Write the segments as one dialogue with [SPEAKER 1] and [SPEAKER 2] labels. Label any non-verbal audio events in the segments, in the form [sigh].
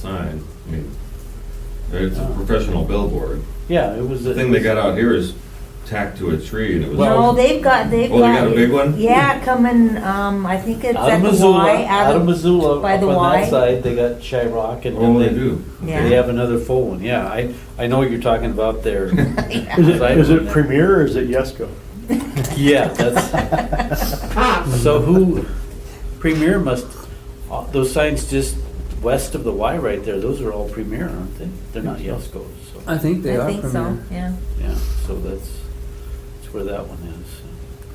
[SPEAKER 1] sign. I mean, It's a professional billboard.
[SPEAKER 2] Yeah, it was.
[SPEAKER 1] The thing they got out here is tacked to a tree and it was.
[SPEAKER 2] Well-
[SPEAKER 3] No, they've got, they've got.
[SPEAKER 1] Oh, they got a big one?
[SPEAKER 3] Yeah, coming, um, I think it's
[SPEAKER 2] Out
[SPEAKER 3] at
[SPEAKER 2] of
[SPEAKER 3] the
[SPEAKER 2] Missoula,
[SPEAKER 3] Y.
[SPEAKER 2] out of Missoula,
[SPEAKER 3] by
[SPEAKER 2] up
[SPEAKER 3] the
[SPEAKER 2] on
[SPEAKER 3] Y.
[SPEAKER 2] that side, they got Shyrock and
[SPEAKER 1] Oh,
[SPEAKER 2] then
[SPEAKER 1] they
[SPEAKER 2] they,
[SPEAKER 1] do.
[SPEAKER 2] they
[SPEAKER 3] Yeah.
[SPEAKER 2] have another full one, yeah, I, I know what you're talking
[SPEAKER 1] [laughs]
[SPEAKER 2] about there.
[SPEAKER 4] Is it,
[SPEAKER 2] Side
[SPEAKER 4] is
[SPEAKER 2] one
[SPEAKER 4] it
[SPEAKER 2] there.
[SPEAKER 4] Premier or is it Yesco?
[SPEAKER 2] Yeah,
[SPEAKER 1] [laughs]
[SPEAKER 2] that's, so who, Premier must, uh, those signs just west of the Y right there, those are all Premier, aren't they? They're not Yesco's, so,
[SPEAKER 5] I think they
[SPEAKER 3] I
[SPEAKER 5] are
[SPEAKER 3] think so,
[SPEAKER 5] Premier.
[SPEAKER 3] yeah.
[SPEAKER 2] yeah, so that's, that's where that one is.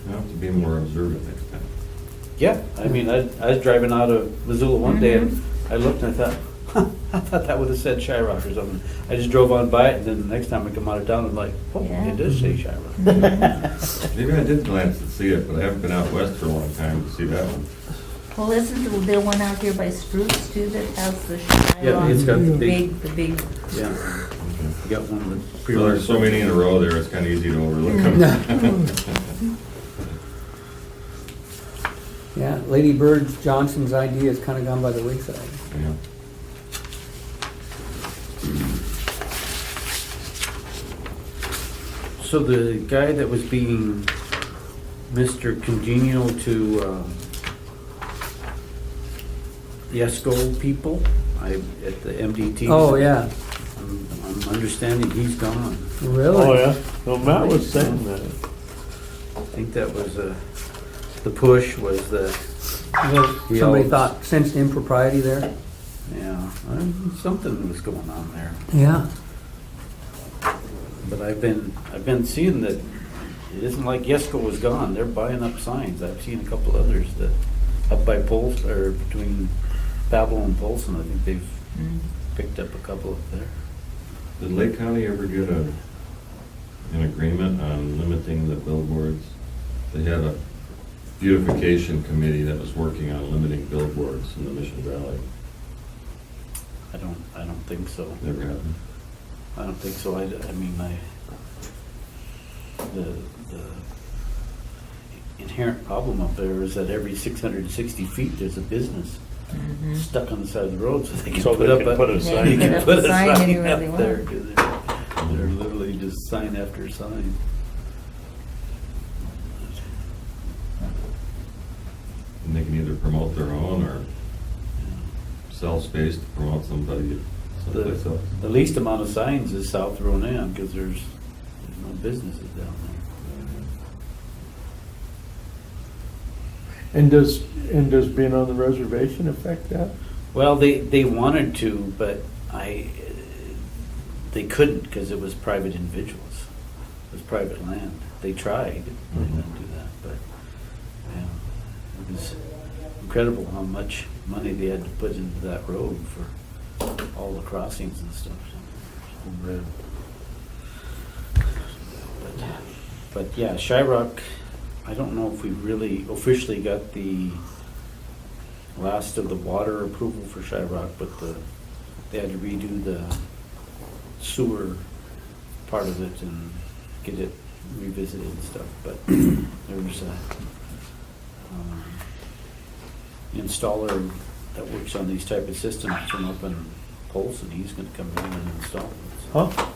[SPEAKER 1] I have to be more observant next time.
[SPEAKER 2] Yeah, I mean, I, I was driving out of Missoula one day and I looked and I thought, [laughs] huh, I thought that would have said Shyrock or something. I just drove on by it and then the next time I come out of town, I'm like, oh,
[SPEAKER 3] Yeah.
[SPEAKER 2] it does say Shyrock.
[SPEAKER 1] Maybe I did glance to see it, but I haven't been out west for a long time to see that one.
[SPEAKER 3] Well, isn't there one out here by Spruce too that has the Shylock?
[SPEAKER 2] Yeah, it's got the big,
[SPEAKER 3] Big, the big,
[SPEAKER 2] yeah,
[SPEAKER 1] Okay.
[SPEAKER 2] you got one with
[SPEAKER 1] Well,
[SPEAKER 2] pre
[SPEAKER 1] there's so many in a row there, it's kind of easy to overlook them.
[SPEAKER 5] Yeah, Lady Bird Johnson's idea has kind of gone by the wayside.
[SPEAKER 1] Yeah.
[SPEAKER 2] So the guy that was being Mr. Congenial to um, Yesco people, I, at the MDT.
[SPEAKER 5] Oh, yeah,
[SPEAKER 2] I'm I'm understanding he's gone.
[SPEAKER 5] really?
[SPEAKER 4] Oh, yeah. Well, Matt was saying that.
[SPEAKER 2] I think that was, uh, the push was the,
[SPEAKER 5] Well,
[SPEAKER 2] He
[SPEAKER 5] Somebody
[SPEAKER 2] owns-
[SPEAKER 5] thought sensed impropriety there.
[SPEAKER 2] yeah, I- something was going on there.
[SPEAKER 5] Yeah,
[SPEAKER 2] But I've been, I've been seeing that it isn't like Yesco was gone, they're buying up signs. I've seen a couple others that, up by Pols, or between Babel and Polson, I think they've
[SPEAKER 3] mm,
[SPEAKER 2] picked up a couple up there.
[SPEAKER 1] Did Lake County ever get a, an agreement on limiting the billboards? They had a beautification committee that was working on limiting billboards in the Mission Valley.
[SPEAKER 2] I don't, I don't think so.
[SPEAKER 1] Never happened.
[SPEAKER 2] I don't think so. I, I mean, I, the, the inherent problem up there is that every six hundred and sixty feet, there's a business
[SPEAKER 3] mhm.
[SPEAKER 2] stuck on the side of the road, so they can
[SPEAKER 4] So
[SPEAKER 2] put
[SPEAKER 4] they
[SPEAKER 2] up
[SPEAKER 4] can
[SPEAKER 2] a.
[SPEAKER 4] put a
[SPEAKER 2] they
[SPEAKER 4] sign.
[SPEAKER 2] can
[SPEAKER 4] They can
[SPEAKER 2] put a [laughs]
[SPEAKER 3] sign
[SPEAKER 2] sign
[SPEAKER 3] anywhere
[SPEAKER 2] up
[SPEAKER 3] they want.
[SPEAKER 2] there, 'cause They're they're literally just sign after sign.
[SPEAKER 1] And they can either promote their own or sell space to promote somebody someplace else.
[SPEAKER 2] The least amount of signs is South Ronan, because there's, there's no businesses down
[SPEAKER 4] And does, and does being on the reservation affect that?
[SPEAKER 2] there. Well, they, they wanted to, but I, uh, they couldn't, because it was private individuals. It was private land. They tried, they didn't do that, but, yeah. It was incredible how much money they had to put into that road for all the crossings and stuff. so, it's unreal. But- But, yeah, Shyrock, I don't know if we really officially got the last of the water approval for Shyrock, but the, they had to redo the sewer part of it and get it revisited and stuff, but there was a um, installer that works on these type of systems from up in Polson, he's gonna come down and install it.
[SPEAKER 4] Huh?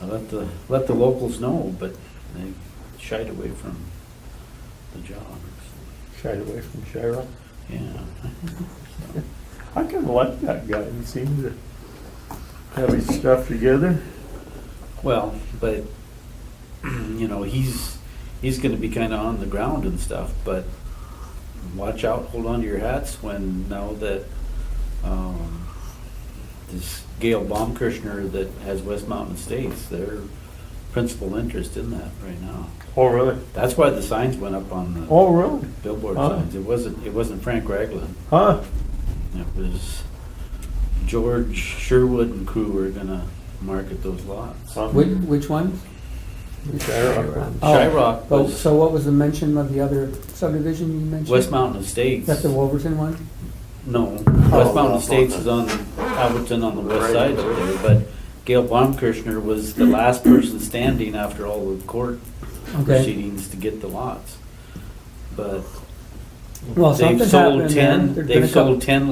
[SPEAKER 2] I let the, let the locals know, but they shied away from the job, so,
[SPEAKER 4] Shied away from Shira.
[SPEAKER 2] yeah.
[SPEAKER 4] I kind of like that guy. He seems to have his stuff together.
[SPEAKER 2] Well, but, [clears throat] you know, he's, he's gonna be kinda on the ground and stuff, but watch out, hold on to your hats when, now that, um, this Gail Baumkirchner that has West Mountain Estates, their principal interest in that right now.
[SPEAKER 4] Oh, really?
[SPEAKER 2] That's why the signs went up on the
[SPEAKER 4] Oh, really?
[SPEAKER 2] billboard
[SPEAKER 4] Huh?
[SPEAKER 2] signs. It wasn't, it wasn't Frank Ragland.
[SPEAKER 4] Huh?
[SPEAKER 2] It was George Sherwood and crew were gonna market those lots.
[SPEAKER 4] Huh?
[SPEAKER 5] which, which one?
[SPEAKER 4] Shira.
[SPEAKER 5] Oh,
[SPEAKER 2] Shyrock
[SPEAKER 5] Oh,
[SPEAKER 2] was
[SPEAKER 5] so what was the mention of the other subdivision you mentioned?
[SPEAKER 2] West Mountain Estates.
[SPEAKER 5] That's the Wolverton one?
[SPEAKER 2] No,
[SPEAKER 4] Oh,
[SPEAKER 2] West
[SPEAKER 4] well,
[SPEAKER 2] Mountain
[SPEAKER 4] on
[SPEAKER 2] Estates
[SPEAKER 4] the-
[SPEAKER 2] is on Alberton on the west
[SPEAKER 4] Right.
[SPEAKER 2] side of there, but Gail Baumkirchner was the last person standing after all the court
[SPEAKER 5] Okay,
[SPEAKER 2] proceedings to get the lots. But
[SPEAKER 5] well,
[SPEAKER 2] they've
[SPEAKER 5] something's
[SPEAKER 2] sold
[SPEAKER 5] happened there.
[SPEAKER 2] ten,
[SPEAKER 5] There's been a
[SPEAKER 2] they've
[SPEAKER 5] couple-
[SPEAKER 2] sold ten